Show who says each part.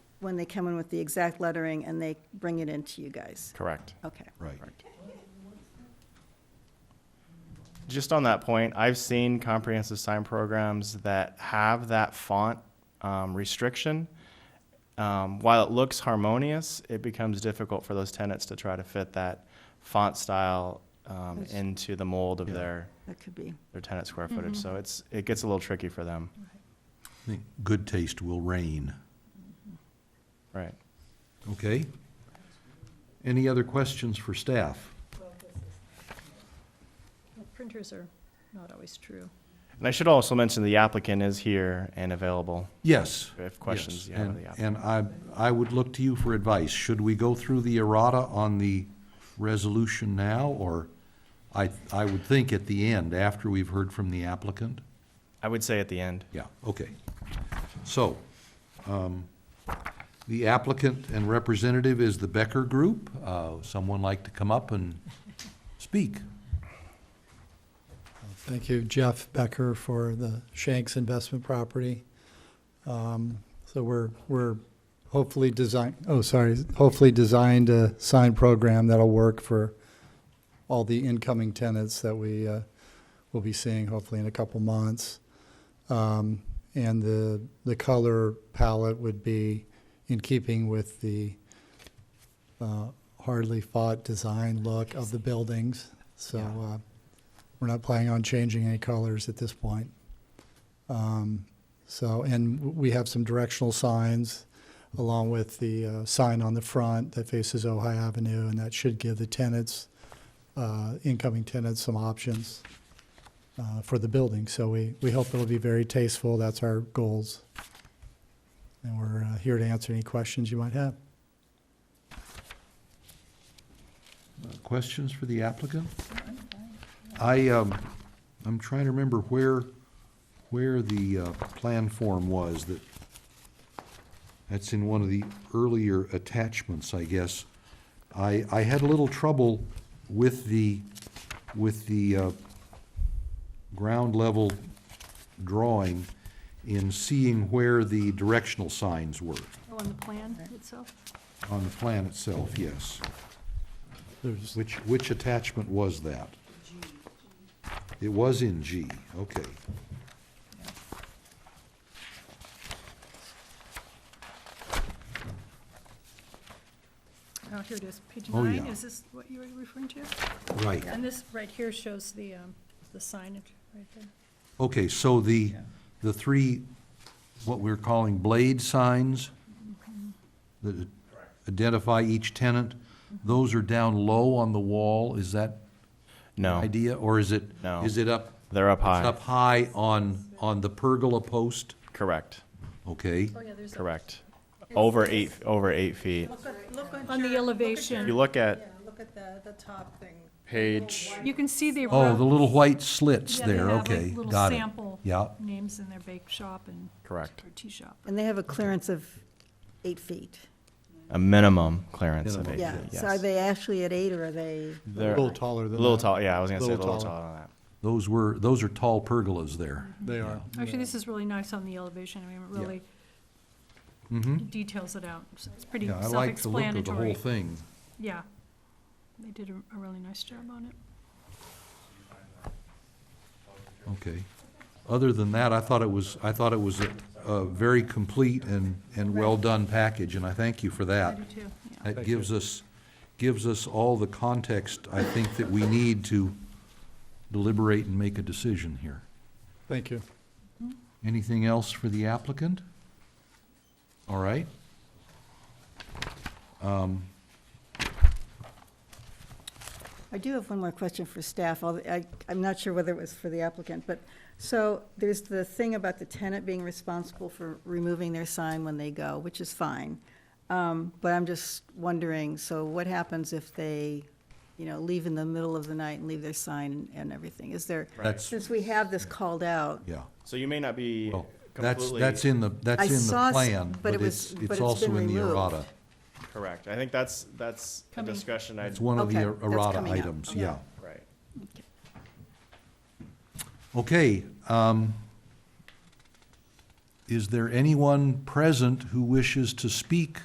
Speaker 1: when they come in with the exact lettering and they bring it in to you guys.
Speaker 2: Correct.
Speaker 1: Okay.
Speaker 3: Right.
Speaker 2: Just on that point, I've seen comprehensive sign programs that have that font um, restriction. Um, while it looks harmonious, it becomes difficult for those tenants to try to fit that font style um,
Speaker 1: That's-
Speaker 2: into the mold of
Speaker 3: Yeah.
Speaker 2: their,
Speaker 1: That could be.
Speaker 2: their tenant square footage. So it's, it gets a little tricky for them.
Speaker 3: I think good taste will reign,
Speaker 2: Right.
Speaker 3: okay? Any other questions for staff?
Speaker 4: Well, Printers are not always true.
Speaker 2: And I should also mention the applicant is here and available
Speaker 3: Yes.
Speaker 2: if questions you
Speaker 3: yes,
Speaker 2: have of
Speaker 3: and-
Speaker 2: the applicant.
Speaker 3: And I, I would look to you for advice. Should we go through the errata on the resolution now, or I, I would think at the end, after we've heard from the applicant?
Speaker 2: I would say at the end.
Speaker 3: Yeah, okay. So, um, the applicant and representative is the Becker Group. Uh, Someone like to come up and speak?
Speaker 5: Thank you, Jeff Becker, for the Shanks Investment Property. Um, So we're, we're hopefully design, oh, sorry, hopefully designed a sign program that'll work for all the incoming tenants that we uh, will be seeing hopefully in a couple months. Um, And the, the color palette would be in keeping with the uh, hardly fought design look of the buildings. So uh, we're not planning on changing any colors at this point. Um, So, and w- we have some directional signs along with the uh, sign on the front that faces Ojai Avenue, and that should give the tenants, uh, incoming tenants, some options uh, for the building. So we, we hope it'll be very tasteful. That's our goals. And we're uh, here to answer any questions you might have.
Speaker 3: Questions for the applicant? I, um, I'm trying to remember where, where the uh, plan form was that, that's in one of the earlier attachments, I guess. I, I had a little trouble with the, with the uh, ground level drawing in seeing where the directional signs were
Speaker 4: Oh, on the plan itself?
Speaker 3: on the plan itself, yes.
Speaker 5: There's,
Speaker 3: Which, which attachment was that? It was in G, okay.
Speaker 4: Oh, here it is, page
Speaker 3: Oh,
Speaker 4: nine,
Speaker 3: yeah.
Speaker 4: is this what you were referring to?
Speaker 3: Right.
Speaker 4: And this right here shows the, um, the signage right there.
Speaker 3: Okay, so the, the three, what we're calling blade signs that identify each tenant, those are down low on the wall, is that the
Speaker 2: No,
Speaker 3: idea? Or is it,
Speaker 2: No.
Speaker 3: is it up?
Speaker 2: they're up
Speaker 3: it's
Speaker 2: high.
Speaker 3: Up high on, on the pergola post?
Speaker 2: Correct.
Speaker 3: Okay,
Speaker 4: Oh, yeah, there's. a-
Speaker 2: Correct. Over eight, over eight feet.
Speaker 4: On the
Speaker 2: If you
Speaker 4: elevation,
Speaker 2: look at
Speaker 6: Look at the, the top thing.
Speaker 2: page,
Speaker 4: you can see they
Speaker 3: oh,
Speaker 4: wrote.
Speaker 3: the little white slits
Speaker 4: yeah, they
Speaker 3: there,
Speaker 4: have, like,
Speaker 3: okay,
Speaker 4: little
Speaker 3: got it.
Speaker 4: sample
Speaker 3: Yeah,
Speaker 4: Names in their bake shop and.
Speaker 2: Correct.
Speaker 4: Or tea shop.
Speaker 1: And they have a clearance of eight feet.
Speaker 2: a minimum clearance of eight
Speaker 1: Yeah.
Speaker 2: feet,
Speaker 1: So are
Speaker 2: yes.
Speaker 1: they actually at eight or are they?
Speaker 5: a
Speaker 2: They're-
Speaker 5: little taller than
Speaker 2: A
Speaker 5: that.
Speaker 2: little tall, yeah, I was gonna say a
Speaker 5: Little
Speaker 2: little
Speaker 5: taller.
Speaker 2: taller than that.
Speaker 3: those were, those are tall pergolas there.
Speaker 5: They are.
Speaker 4: Actually, this is really nice on the elevation, I mean, it
Speaker 3: Yeah.
Speaker 4: really
Speaker 3: Mm-hmm.
Speaker 4: details it out, So it's pretty
Speaker 3: Yeah, I like the look of the whole
Speaker 4: self-explanatory.
Speaker 3: thing.
Speaker 4: Yeah, they did a, a really nice job on it.
Speaker 3: Okay. Other than that, I thought it was, I thought it was a, a very complete and, and well-done package, and I thank you for
Speaker 4: I
Speaker 3: that.
Speaker 4: do too, yeah.
Speaker 3: That gives us, gives us all the context, I think, that we need to deliberate and make a decision here.
Speaker 5: Thank you.
Speaker 3: Anything else for the applicant? All right. Um,
Speaker 1: I do have one more question for staff. although I, I'm not sure whether it was for the applicant, but, so there's the thing about the tenant being responsible for removing their sign when they go, which is fine. Um, But I'm just wondering, so what happens if they, you know, leave in the middle of the night and leave their sign and everything? Is there,
Speaker 3: That's,
Speaker 1: since we have this called out,
Speaker 3: yeah.
Speaker 2: So you may not be
Speaker 3: Well, that's,
Speaker 2: completely.
Speaker 3: that's in the, that's
Speaker 1: I
Speaker 3: in
Speaker 1: saw
Speaker 3: the
Speaker 1: s-
Speaker 3: plan,
Speaker 1: but
Speaker 3: but
Speaker 1: it was-
Speaker 3: it's,
Speaker 1: but
Speaker 3: it's
Speaker 1: it's
Speaker 3: also
Speaker 1: been
Speaker 3: in the
Speaker 1: removed.
Speaker 3: errata.
Speaker 2: Correct. I think that's, that's a
Speaker 4: Coming.
Speaker 2: discussion I'd,
Speaker 3: It's one of the er,
Speaker 1: Okay, that's
Speaker 3: errata
Speaker 1: coming up.
Speaker 3: items, yeah.
Speaker 2: right.
Speaker 3: Okay, um, Is there anyone present who wishes to speak